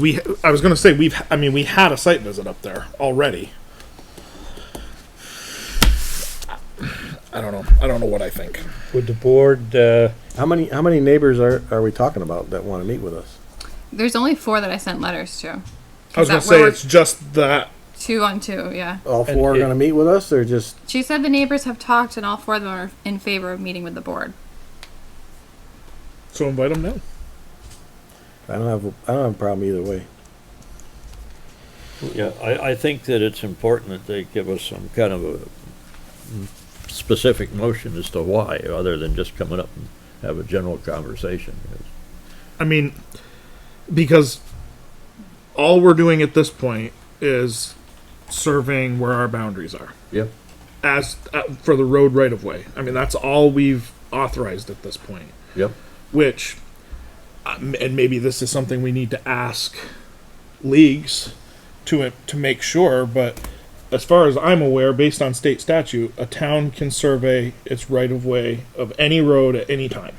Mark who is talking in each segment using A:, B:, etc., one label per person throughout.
A: we I was gonna say we've I mean we had a site visit up there already. I don't know. I don't know what I think.
B: Would the board, uh,
C: How many, how many neighbors are, are we talking about that wanna meet with us?
D: There's only four that I sent letters to.
A: I was gonna
D: That
A: say
D: we're-
A: it's just that
D: Two on two, yeah.
C: All four are
B: it-
C: gonna meet with us, or just,
D: She said the neighbors have talked and all four of them are in favor of meeting with the board.
A: so invite them now.
C: I don't have, I don't have a problem either way.
E: Yeah, I, I think that it's important that they give us some kind of a specific motion as to why, other than just coming up and have a general conversation.
A: I mean, because all we're doing at this point is surveying where our boundaries are
E: Yep.
A: as uh, for the road right of way. I mean that's all we've authorized at this point.
E: Yep.
A: which um, and maybe this is something we need to ask leagues to uh, to make sure but as far as I'm aware based on state statute a town can survey its right of way of any road at any time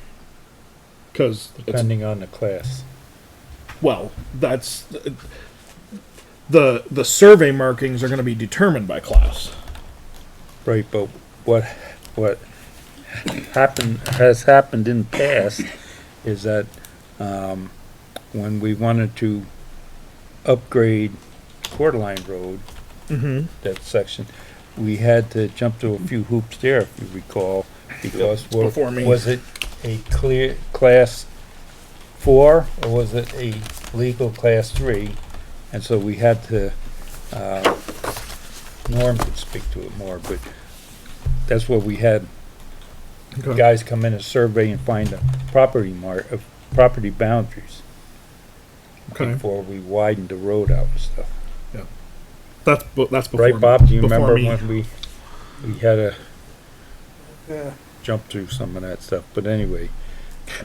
A: cuz it's
B: depending on the class?
A: well that's the the survey markings are going to be determined by class
B: Right, but what, what happened, has happened in the past is that, um, when we wanted to upgrade Quarter Line Road,
A: mhm
B: that section, we had to jump through a few hoops there, if you recall, because wa-
A: Before me.
B: was it a clear class four, or was it a legal class three? And so we had to, uh, Norm could speak to it more, but that's what we had guys come in and survey and find the property mark, uh, property boundaries
A: okay
B: before we widened the road out and stuff.
A: that's bu- that's before
B: Right, Bob, do you
A: before
B: remember
A: me.
B: when we, we had a jump through some of that stuff, but anyway,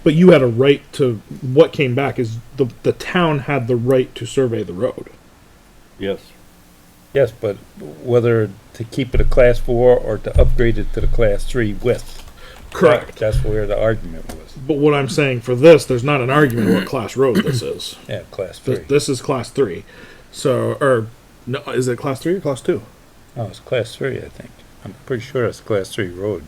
A: But you had a right to what came back is the the town had the right to survey the road.
E: Yes.
B: yes, but whether to keep it a class four or to upgrade it to the class three width. That's where the argument was,
A: But what I'm saying for this, there's not an argument what class road this is.
B: yeah, class
A: Th-
B: three.
A: This is class three. So or no, is it class three or class two?
B: No, Oh, it's class three, I think. I'm pretty sure it's class three road.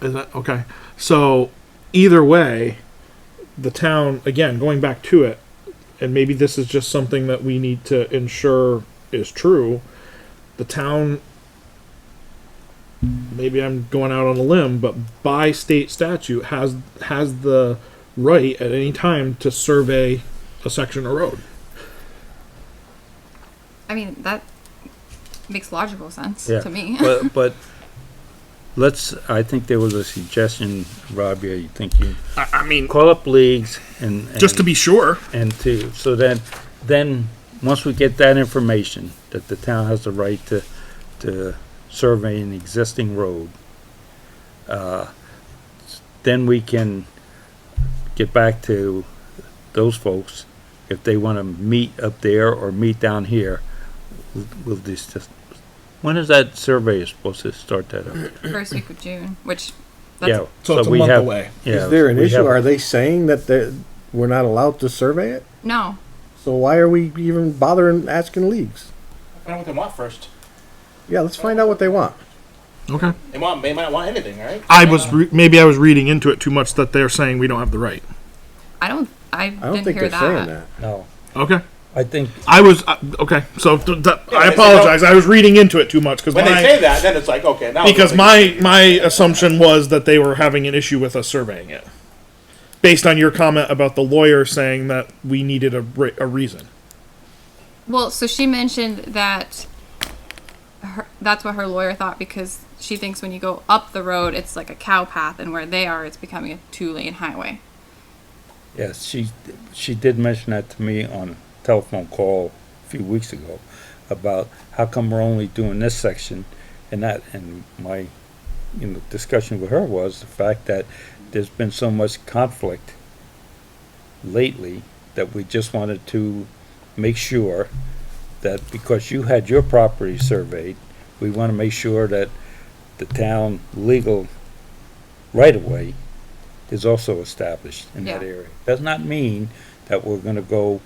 A: Is that okay? So either way, the town again going back to it, and maybe this is just something that we need to ensure is true. The town. Maybe I'm going out on a limb, but by state statute has has the right at any time to survey a section of road.
D: I mean, that makes logical sense
B: Yeah.
D: to me.
B: But, but, let's, I think there was a suggestion, Robbie, I think you,
A: I, I mean,
B: call up leagues and.
A: just to be sure.
B: And to, so then, then, once we get that information, that the town has the right to, to survey an existing road, uh, then we can get back to those folks, if they wanna meet up there or meet down here, we'll- we'll just, just- when is that survey supposed to start that up?
D: First week of June, which that's
B: Yeah,
A: So it's a
B: we
A: month
B: have-
A: away.
B: yeah,
C: Is there an
B: we
C: issue?
B: have-
C: Are they saying that they, we're not allowed to survey it?
D: no.
C: So why are we even bothering asking leagues?
F: I don't know what they want first.
C: Yeah, let's find out what they want.
A: Okay.
F: They want. They might want anything, right?
A: I was re- maybe I was reading into it too much that they're saying we don't have the right.
D: I don't I,
C: I don't
D: didn't
C: think
D: hear
C: they're saying
D: that.
C: that.
B: No,
A: Okay.
B: I think
A: I was uh, okay. So th- th- I
F: they say
A: apologize. I was reading into it too much because
F: When
A: my
F: they say that, then it's like okay now.
A: because my my assumption was that they were having an issue with us surveying it, based on your comment about the lawyer saying that we needed a re- a reason.
D: Well, so she mentioned that her, that's what her lawyer thought because she thinks when you go up the road, it's like a cow path, and where they are, it's becoming a two lane highway.
B: Yes, she, she did mention that to me on a telephone call a few weeks ago about how come we're only doing this section and that, and my, you know, discussion with her was the fact that there's been so much conflict lately that we just wanted to make sure that because you had your property surveyed, we want to make sure that the town legal right-of-way is also established in that
D: Yeah.
B: area. Does not mean that we're gonna go